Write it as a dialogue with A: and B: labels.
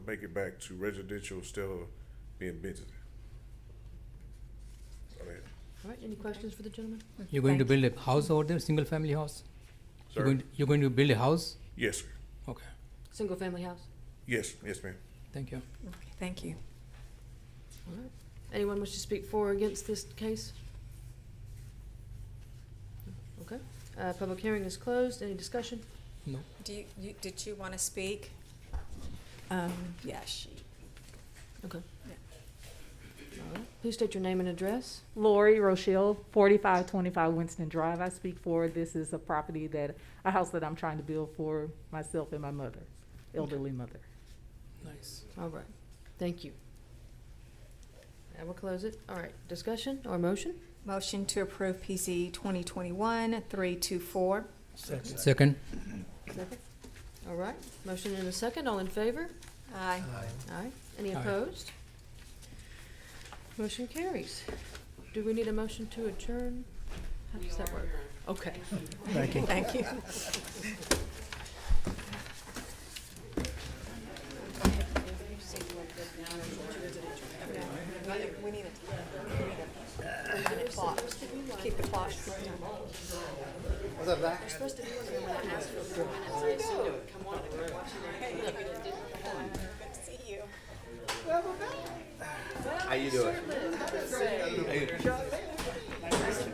A: make it back to residential instead of being business. Go ahead.
B: All right, any questions for the gentleman?
C: You're going to
B: Thank
C: build a house over there, single family house? You're
A: Sir?
C: going, you're going to build a house?
A: Yes, sir.
C: Okay,
B: Single-family house?
A: Yes, yes, ma'am.
C: thank you.
D: Okay, Thank you.
B: All right. Anyone wish to speak for or against this case? Okay, uh, public hearing is closed. Any discussion?
C: No,
D: Do you, you, did you want to speak? Um, yeah, she.
B: Okay. All right. Please state your name and address.
E: Lori Rochelle, forty-five twenty-five Winston Drive. I speak for, this is a property that, a house that I'm trying to build for myself and my mother, elderly mother.
C: nice.
B: All right, thank you. I will close it. All right, discussion or motion?
D: Motion to approve PC twenty twenty-one three two four.
C: Second,
B: Second. All right, motion and a second. All in favor?
D: Aye.
B: Aye. Any
C: Aye.
B: opposed? Motion carries. Do we need a motion to adjourn? How does that work? Okay.
D: Thank you. We need a, we need a clock. Keep the clock.
F: How you doing?